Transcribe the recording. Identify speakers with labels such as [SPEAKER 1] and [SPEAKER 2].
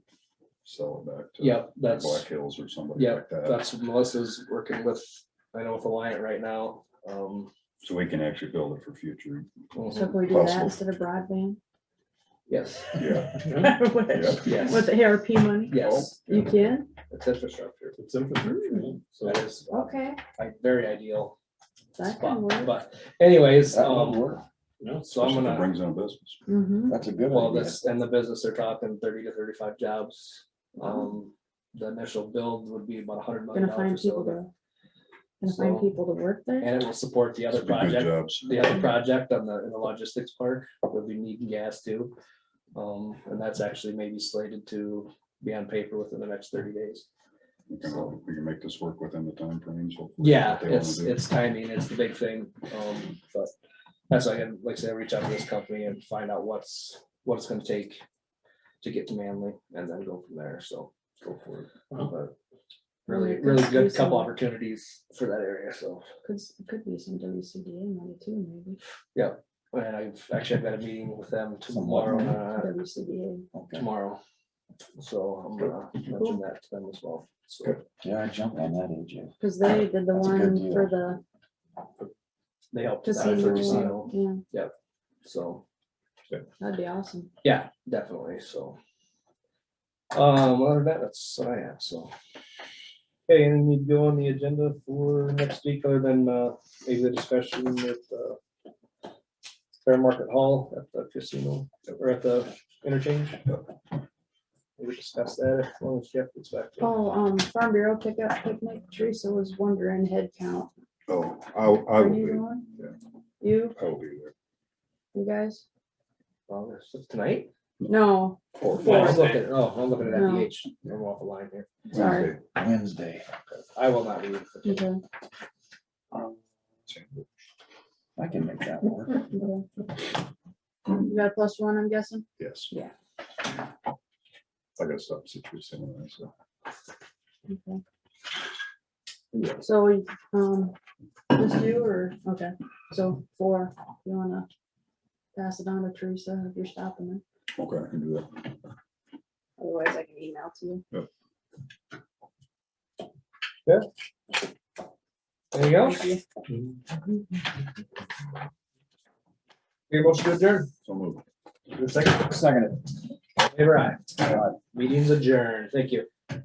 [SPEAKER 1] sell it back to.
[SPEAKER 2] Yeah,
[SPEAKER 1] Black
[SPEAKER 2] that's,
[SPEAKER 1] Hills or somebody
[SPEAKER 2] yeah,
[SPEAKER 1] like that.
[SPEAKER 2] that's Melissa's working with, I know with Alliant right now. Um,
[SPEAKER 1] So we can actually build it for future.
[SPEAKER 3] So
[SPEAKER 2] mhm,
[SPEAKER 3] can we do that
[SPEAKER 1] Possible.
[SPEAKER 3] instead of broadband?
[SPEAKER 2] yes,
[SPEAKER 1] Yeah,
[SPEAKER 4] Mhm.
[SPEAKER 3] With
[SPEAKER 1] yeah.
[SPEAKER 3] with
[SPEAKER 2] yes,
[SPEAKER 3] the ARP money?
[SPEAKER 2] yes,
[SPEAKER 3] You can?
[SPEAKER 2] it's infrastructure.
[SPEAKER 4] It's infrastructure,
[SPEAKER 3] Hmm.
[SPEAKER 4] yeah. so
[SPEAKER 2] That is
[SPEAKER 3] Okay,
[SPEAKER 2] like very ideal
[SPEAKER 3] that can
[SPEAKER 2] spot,
[SPEAKER 3] work.
[SPEAKER 2] but anyways,
[SPEAKER 5] That would
[SPEAKER 2] um,
[SPEAKER 5] work.
[SPEAKER 4] no,
[SPEAKER 2] so I'm
[SPEAKER 1] Especially if it
[SPEAKER 2] gonna.
[SPEAKER 1] Brings in business.
[SPEAKER 3] Mhm.
[SPEAKER 5] That's a good
[SPEAKER 2] Well,
[SPEAKER 5] idea.
[SPEAKER 2] this, and the business, they're talking thirty to thirty-five jobs. Um, the initial build would be about a hundred million
[SPEAKER 3] Oh. Gonna find
[SPEAKER 2] dollars or
[SPEAKER 3] people
[SPEAKER 2] so.
[SPEAKER 3] to, gonna find
[SPEAKER 2] So-
[SPEAKER 3] people to work there?
[SPEAKER 2] And it will support the other
[SPEAKER 1] It'd be good
[SPEAKER 2] project,
[SPEAKER 1] Jobs.
[SPEAKER 2] the other project on the, in the logistics park, would be needing gas too. Um, and that's actually maybe slated to be on paper within the next thirty days.
[SPEAKER 1] We can all- we can make this work within the timeframes. hopefully,
[SPEAKER 2] Yeah,
[SPEAKER 1] what they wanna
[SPEAKER 2] it's,
[SPEAKER 1] do.
[SPEAKER 2] it's timing, it's the big thing, um, but that's why I can, like I said, reach out to this company and find out what's, what it's gonna take to get to Manly and then go from there, so go for it.
[SPEAKER 4] Wow.
[SPEAKER 2] But
[SPEAKER 3] Well,
[SPEAKER 2] Really,
[SPEAKER 3] there
[SPEAKER 2] really
[SPEAKER 3] could be
[SPEAKER 2] good couple
[SPEAKER 3] some-
[SPEAKER 2] opportunities for that area, so,
[SPEAKER 3] Could, s- could be some WCDA money too, maybe.
[SPEAKER 2] and I've, actually, I've got a meeting with them
[SPEAKER 5] Somewhat,
[SPEAKER 2] tomorrow, uh,
[SPEAKER 3] WCDA.
[SPEAKER 5] Okay,
[SPEAKER 2] tomorrow. So I'm gonna mention that to them as well, so.
[SPEAKER 5] yeah, I jumped on that, AJ.
[SPEAKER 3] Cause they did the
[SPEAKER 5] That's a good
[SPEAKER 3] one for
[SPEAKER 5] deal.
[SPEAKER 3] the
[SPEAKER 2] They helped. us out for
[SPEAKER 3] casino.
[SPEAKER 2] casino,
[SPEAKER 3] Yeah,
[SPEAKER 2] So.
[SPEAKER 3] that'd be awesome.
[SPEAKER 2] Yeah, definitely, so. Um, other than that, that's what I have, so. Okay, and we go on the agenda for next week, other than, uh, maybe the discussion with, uh. Fair Market Hall at the casino, or at the interchange. We discussed that, as long as Jeff gets back. to it.
[SPEAKER 3] Oh, um, Farm Bureau pickup picnic, Teresa was wondering head count.
[SPEAKER 1] Oh, I, I
[SPEAKER 3] Are
[SPEAKER 1] will
[SPEAKER 3] you
[SPEAKER 1] be,
[SPEAKER 3] going?
[SPEAKER 1] yeah.
[SPEAKER 3] You,
[SPEAKER 1] I will be there.
[SPEAKER 3] you guys?
[SPEAKER 2] Oh, this is Tonight?
[SPEAKER 3] No,
[SPEAKER 2] Or-
[SPEAKER 4] Wednesday.
[SPEAKER 2] Oh, I'm looking, oh, I'm looking at
[SPEAKER 3] No.
[SPEAKER 2] FDH, I'm off the line here,
[SPEAKER 3] Sorry.
[SPEAKER 1] Wednesday.
[SPEAKER 5] Wednesday.
[SPEAKER 2] I will not leave.
[SPEAKER 3] okay,
[SPEAKER 2] Um,
[SPEAKER 5] I can make that work.
[SPEAKER 3] okay. You Um, got a plus one, I'm guessing?
[SPEAKER 1] Yes.
[SPEAKER 3] Yeah.
[SPEAKER 1] I gotta stop situation anyway, so.
[SPEAKER 3] Okay.
[SPEAKER 1] Yeah.
[SPEAKER 3] So, um, just you or, okay, so four, you wanna pass it on to Teresa if you're stopping them?
[SPEAKER 1] Okay, I can do that.
[SPEAKER 3] Otherwise I can email to you.
[SPEAKER 2] There you go,
[SPEAKER 3] Thank you.
[SPEAKER 2] your motion to adjourn,
[SPEAKER 1] So move.
[SPEAKER 2] Your second,
[SPEAKER 5] Second.
[SPEAKER 2] favor aye.
[SPEAKER 5] it.
[SPEAKER 2] Meeting's adjourned. Thank you.